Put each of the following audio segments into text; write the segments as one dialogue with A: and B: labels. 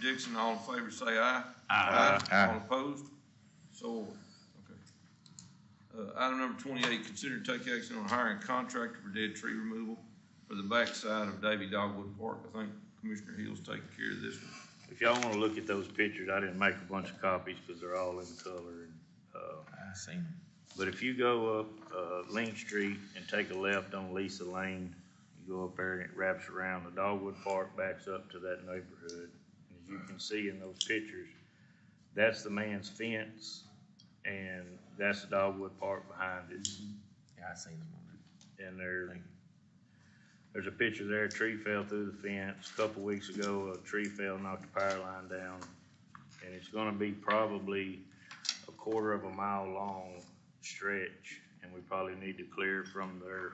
A: Dixon, all in favor, say aye.
B: Aye.
A: All opposed? So ordered. Okay. Uh, item number twenty-eight, consider to take action on hiring a contractor for dead tree removal for the backside of Davy Dogwood Park. I think Commissioner Hill's taking care of this one.
B: If y'all wanna look at those pictures, I didn't make a bunch of copies, cause they're all in color and, uh,
C: I seen him.
B: But if you go up, uh, Ling Street and take a left on Lisa Lane, you go up there and it wraps around, the Dogwood Park backs up to that neighborhood. And as you can see in those pictures, that's the man's fence and that's the Dogwood Park behind it.
C: Yeah, I seen him on
B: And there, there's a picture there, a tree fell through the fence. A Couple weeks ago, a tree fell, knocked the power line down. And it's gonna be probably a quarter of a mile long stretch. And we probably need to clear from their,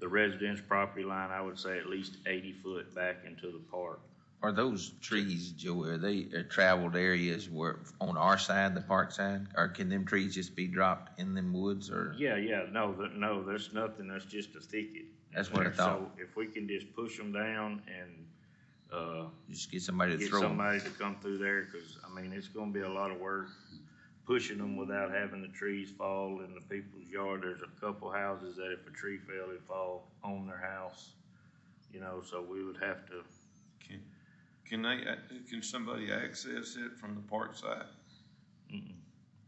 B: the residence property line, I would say at least eighty foot back into the park.
C: it. Are those trees, Joe, are they are traveled areas where, on our side, the park side? Or can them trees just be dropped in them woods or?
B: Yeah, yeah, no, th no, there's nothing, that's just a thicket.
C: That's what I
B: So
C: thought.
B: If we can just push them down and, uh,
C: Just get somebody to
B: get
C: throw them?
B: somebody to come through there, cause I mean, it's gonna be a lot of work pushing them without having the trees fall in the people's yard. There's a couple houses that if a tree fell, it'd fall on their house. You know, so we would have to,
A: Can, can they, ac- can somebody access it from the park side?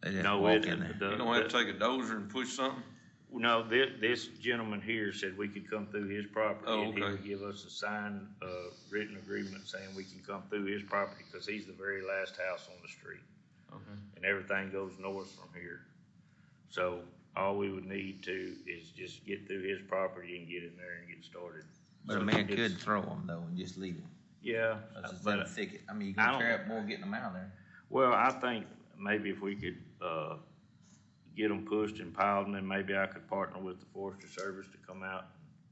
C: They'd have to
B: no,
C: walk
B: it,
C: in there.
A: You don't have to take a dozer and push something?
B: no, this, this gentleman here said we could come through his property.
A: Oh,
B: and he
A: okay.
B: would Give us a signed, uh, written agreement saying we can come through his property, cause he's the very last house on the street.
A: Okay.
B: and everything goes north from here. So all we would need to is just get through his property and get in there and get started.
C: But a
B: So
C: man
B: it's-
C: could throw them though and just leave them.
B: Yeah,
C: It's in
B: but,
C: the thicket. I mean, you're gonna
B: I don't-
C: tear up more getting them out of there.
B: well, I think maybe if we could, uh, get them pushed and piled, and then maybe I could partner with the Forestry Service to come out,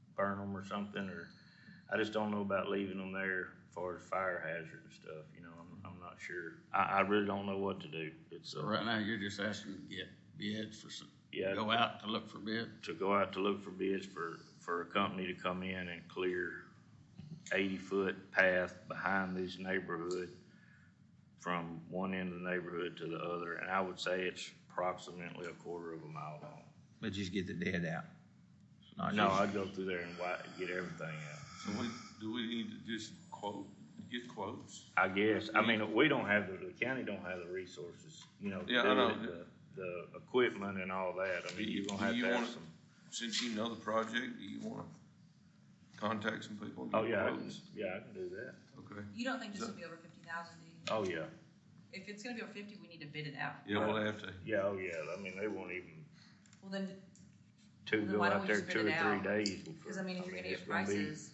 B: and burn them or something, or I just don't know about leaving them there as far as fire hazard and stuff, you know, I'm, I'm not sure. I, I really don't know what to do. It's,
D: So
B: uh,
D: right now, you're just asking to get bids for some,
B: yeah.
D: go out to look for bid.
B: to go out to look for bids for, for a company to come in and clear eighty-foot path behind this neighborhood from one end of the neighborhood to the other, and I would say it's approximately a quarter of a mile long.
C: But just get the dead out. Not
B: No,
C: just-
B: I'd go through there and wi- get everything out.
A: So we, do we need to just quote, get quotes?
B: I guess, I mean, we don't have, the the county don't have the resources, you know, to
A: Yeah, I
B: do
A: know.
B: it, the, the equipment and all that, I mean, you're gonna
A: Do
B: have
A: you
B: to have
A: wanna-
B: some.
A: Since you know the project, do you wanna contact some people? and get
B: Oh, yeah, I can,
A: quotes?
B: yeah, I can do that,
A: Okay.
E: You don't think this will be over fifty thousand, do you?
B: oh, yeah.
E: If it's gonna be over fifty, we need to bid it out.
A: Yeah, we'll have to.
B: Yeah, oh, yeah, I mean, they won't even
E: Well, then,
B: to
E: Then
B: go
E: why don't
B: out
E: we
B: there
E: just bid
B: two
E: it
B: or
E: out?
B: three days.
E: cause I mean, if you're gonna
B: it's
E: get
B: be-
E: prices,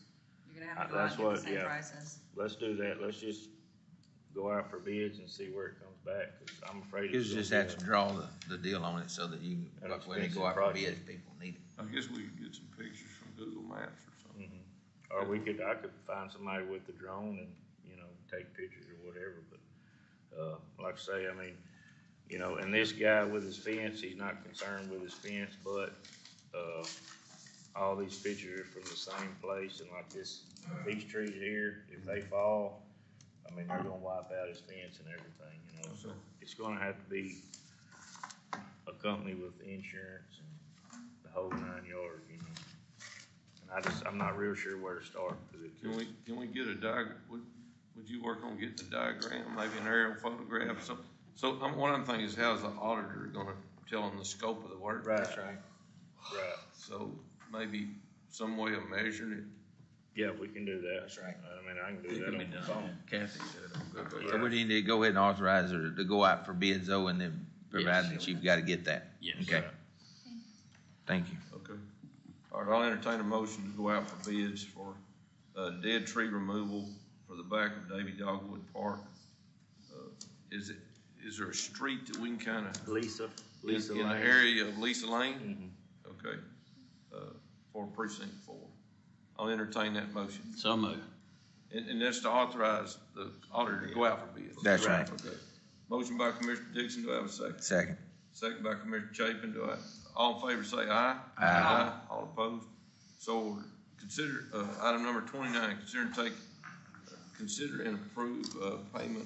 E: you're gonna have to
B: Uh,
E: go out
B: that's
E: and get the
B: what-
E: same
B: yeah.
E: prices.
B: Let's do that, let's just go out for bids and see where it comes back, i I'm afraid.
C: You
B: it's
C: just
B: gonna
C: have
B: be
C: to draw the, the deal on it so that you,
B: An
C: can like, when they
B: expensive
C: go out for
B: project.
C: bid, if people need it.
A: I guess we could get some pictures from Google Maps or something.
B: a- Mm-hmm. Or we could, I could find somebody with the drone and, you know, take pictures or whatever, but, uh, like I say, I mean, you know, and this guy with his fence, he's not concerned with his fence, but, uh, all these pictures are from the same place, and like this, these trees here, if they fall, I mean, they're gonna wipe out his fence and everything, you
A: Oh,
B: know, so it's gonna have to be a company with insurance and the whole nine yards, you know. And I just, I'm not real sure where to start, cause it
A: Can we, can we get a diagram? would, would you work on getting a diagram, maybe an aerial photograph, so, so, I'm, what I'm thinking is how's the auditor gonna tell them the scope of the work?
B: Right, right.
A: So, maybe some way of measuring it,
B: Yeah, we can do that.
C: That's right.
B: I mean, I can do that on the phone.
D: Kathy said it on Google.
C: So we need to go ahead and authorize her to go out for bids though, and then provided that you've gotta get that.
D: Yes.
C: Okay. Thank you.
A: okay. All right, I'll entertain a motion to go out for bids for, uh, dead tree removal for the back of Davy Dogwood Park. Uh, Is it, is there a street that we can kinda,
B: Lisa,
A: in
B: Lisa
A: in the
B: Lane.
A: area of Lisa Lane?
B: Mhm.
A: Okay, uh, for precinct four. I'll entertain that motion.
D: So moved.
A: And, and that's to authorize the auditor to go out for bids.
C: That's right.
A: Okay. Motion by Commissioner Dixon, do I have a second?
C: Second.
A: Second by Commissioner Chapin, do I, all in favor say aye.
C: Aye.
A: All opposed? So ordered. Consider, uh, item number twenty-nine, consider and take consider and approve, uh, payment